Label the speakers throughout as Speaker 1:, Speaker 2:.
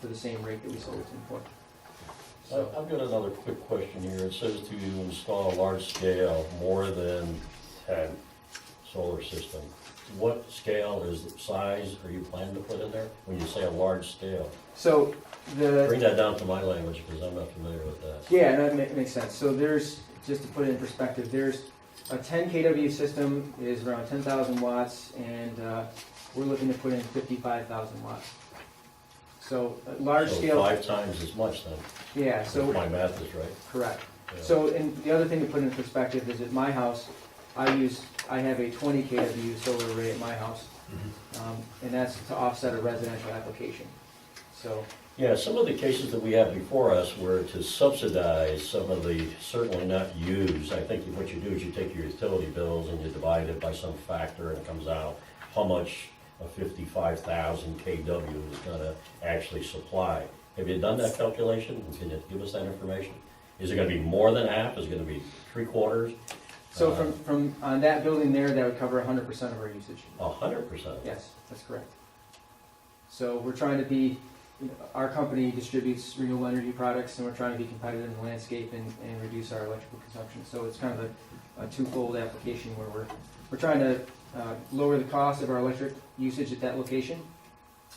Speaker 1: for the same rate that we sold it to them for.
Speaker 2: I-
Speaker 1: So,
Speaker 2: I've got another quick question here. It says to install a large scale, more than 10 solar system. What scale is the size are you planning to put in there when you say a large scale?
Speaker 1: so the,
Speaker 2: Bring that down to my language because I'm not familiar with that.
Speaker 1: yeah, that ma- makes sense. So there's, just to put it in perspective, there's a ten KW system is around ten thousand watts and, uh, we're looking to put in fifty-five thousand watts. So, a large
Speaker 2: So
Speaker 1: scale,
Speaker 2: Five times as much then,
Speaker 1: yeah, so.
Speaker 2: if my math is right.
Speaker 1: Correct.
Speaker 2: Yeah.
Speaker 1: So, and the other thing to put in perspective is at my house, I use, I have a twenty KW solar array at my house.
Speaker 2: Mm-hmm.
Speaker 1: Um, and that's to offset a residential application. So,
Speaker 2: Yeah, some of the cases that we have before us were to subsidize some of the certainly not used. I think what you do is you take your utility bills and you divide it by some factor and it comes out how much a fifty-five thousand KW is gonna actually supply. Have you done that calculation? Can you give us that information? Is it gonna be more than half? Is it gonna be three quarters? Uh,
Speaker 1: so from, from, on that building there, that would cover hundred percent of our usage.
Speaker 2: Uh, A hundred percent?
Speaker 1: Yes, that's correct. So we're trying to be, you know, our company distributes renewable energy products and we're trying to be competitive in the landscape and, and reduce our electrical consumption. So it's kind of a, a twofold application where we're, we're trying to, uh, lower the cost of our electric usage at that location,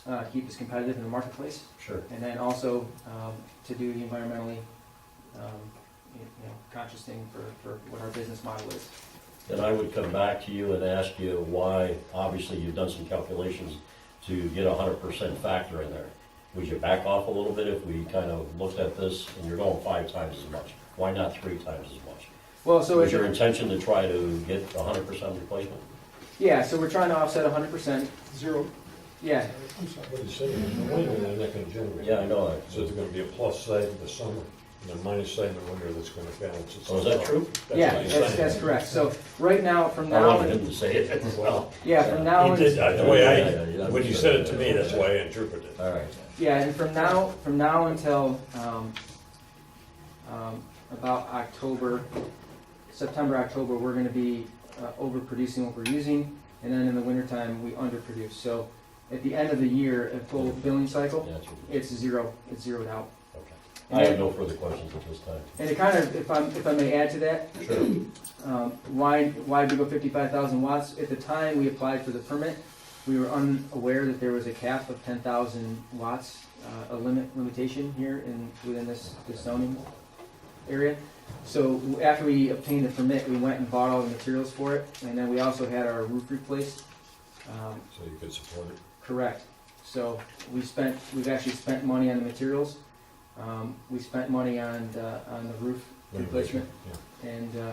Speaker 1: uh, keep us competitive in the marketplace,
Speaker 2: Sure.
Speaker 1: and then also, um, to do the environmentally, um, you know, conscious thing for, for what our business model is.
Speaker 2: then I would come back to you and ask you why, obviously, you've done some calculations to get a hundred percent factor in there. Would you back off a little bit if we kind of looked at this and you're going five times as much? Why not three times as much?
Speaker 1: Well, so
Speaker 2: Was
Speaker 1: it's.
Speaker 2: your intention to try to get a hundred percent replacement?
Speaker 1: Yeah, so we're trying to offset hundred percent,
Speaker 3: Zero.
Speaker 1: yeah,
Speaker 3: I'm sorry, What he's saying is, in the winter, they're not gonna generate.
Speaker 2: Yeah, I know that.
Speaker 3: So there's gonna be a plus side in the summer, and a minus side in the winter that's gonna balance itself.
Speaker 2: So Oh, is that
Speaker 3: out.
Speaker 2: true?
Speaker 3: That's
Speaker 1: Yeah,
Speaker 3: what he's
Speaker 1: that's,
Speaker 3: saying.
Speaker 1: that's correct. So right now, from
Speaker 2: I
Speaker 1: now,
Speaker 2: wanted
Speaker 1: on-
Speaker 2: him to say it as well.
Speaker 1: yeah, from now,
Speaker 3: He did,
Speaker 1: on-
Speaker 3: uh, the
Speaker 2: Yeah, yeah,
Speaker 3: way
Speaker 2: yeah.
Speaker 3: I, when you said it to me, that's why I interpreted it.
Speaker 2: All right.
Speaker 1: yeah, and from now, from now until, um, um, about October, September, October, we're gonna be, uh, overproducing what we're using. And then in the wintertime, we underproduce. So at the end of the year, a full billing cycle,
Speaker 2: That's what-
Speaker 1: it's zero, it's zeroed out.
Speaker 2: okay. I have no further questions at this time.
Speaker 1: And it kind of, if I'm, if I may add to that,
Speaker 2: Sure.
Speaker 1: um, why, why did we go fifty-five thousand watts? At the time we applied for the permit, we were unaware that there was a cap of ten thousand watts, uh, a limit, limitation here in, within this, this zoning area. So after we obtained the permit, we went and bought all the materials for it, and then we also had our roof replaced. Um,
Speaker 3: So you could support it.
Speaker 1: Correct. So we spent, we've actually spent money on the materials. Um, we spent money on, the- on the roof replacement.
Speaker 3: Yeah.
Speaker 1: And uh,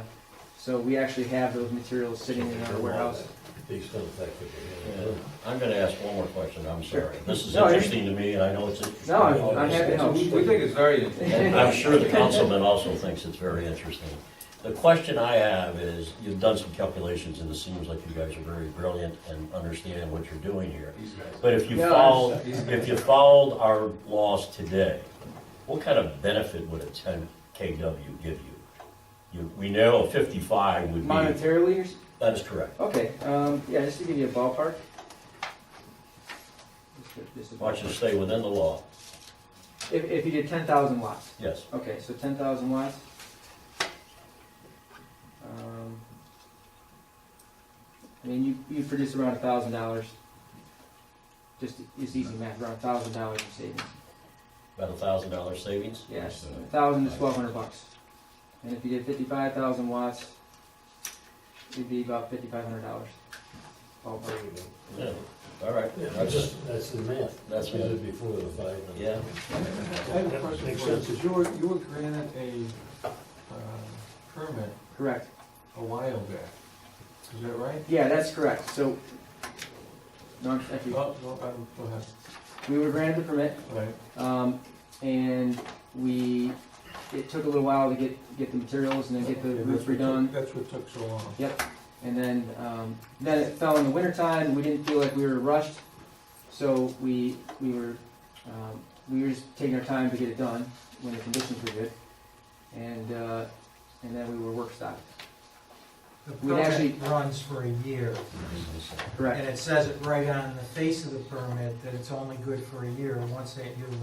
Speaker 1: so we actually have those materials sitting in our warehouse.
Speaker 3: These don't affect it.
Speaker 2: Yeah, I'm gonna ask one more question, I'm
Speaker 1: Sure.
Speaker 2: sorry. This is
Speaker 1: No, you're-
Speaker 2: interesting to me, and I know it's interesting.
Speaker 1: No,
Speaker 2: to all
Speaker 1: I'm,
Speaker 2: of
Speaker 1: I'm
Speaker 2: us.
Speaker 1: happy to help.
Speaker 4: We we think it's very interesting.
Speaker 2: And I'm sure the councilman also thinks it's very interesting. The question I have is, you've done some calculations, and it seems like you guys are very brilliant and understand what you're doing here. But if you
Speaker 1: Yeah, I
Speaker 2: followed,
Speaker 4: understand.
Speaker 2: if you followed our laws today, what kind of benefit would a ten KW give you? You, we know fifty-five would be,
Speaker 1: Monetarily, you're s-
Speaker 2: that is correct.
Speaker 1: okay, um, yeah, just to give you a ballpark. Just a- just a
Speaker 2: Watch
Speaker 1: ballpark.
Speaker 2: us stay within the law,
Speaker 1: If, if you did ten thousand watts,
Speaker 2: yes.
Speaker 1: okay, so ten thousand watts. Um, I mean, you, you produce around a thousand dollars. Just, it's easy math, around a thousand dollars in savings.
Speaker 2: About a thousand dollar savings?
Speaker 1: Yes, a thousand to twelve hundred bucks. And if you did fifty-five thousand watts, it'd be about fifty-five hundred dollars. Ballpark.
Speaker 2: Yeah, all right, that's it.
Speaker 3: that's the math.
Speaker 2: That's
Speaker 3: We
Speaker 2: what-
Speaker 3: did before the five. and-
Speaker 2: Yeah.
Speaker 5: I have a question
Speaker 3: Makes
Speaker 5: for you.
Speaker 3: sense.
Speaker 5: Since You were, you were granted a uh, permit
Speaker 1: Correct.
Speaker 5: a while back, is that right?
Speaker 1: Yeah, that's correct. So, no, I'm- thank you.
Speaker 5: Oh, no, I'm- go ahead.
Speaker 1: we were granted the permit,
Speaker 5: All right.
Speaker 1: um, and we, it took a little while to get, get the materials and then get the
Speaker 5: Okay,
Speaker 1: roof
Speaker 5: that's what took-
Speaker 1: redone.
Speaker 5: That's what took so long.
Speaker 1: Yep, and then, um, then it fell in the wintertime, we didn't feel like we were rushed, so we, we were, um, we were just taking our time to get it done when the conditions were good. And, uh, and then we were work stopped,
Speaker 6: The
Speaker 1: We'd actually-
Speaker 6: permit runs for a year,
Speaker 1: correct?
Speaker 6: and it says it right on the face of the permit that it's only good for a year. Once that year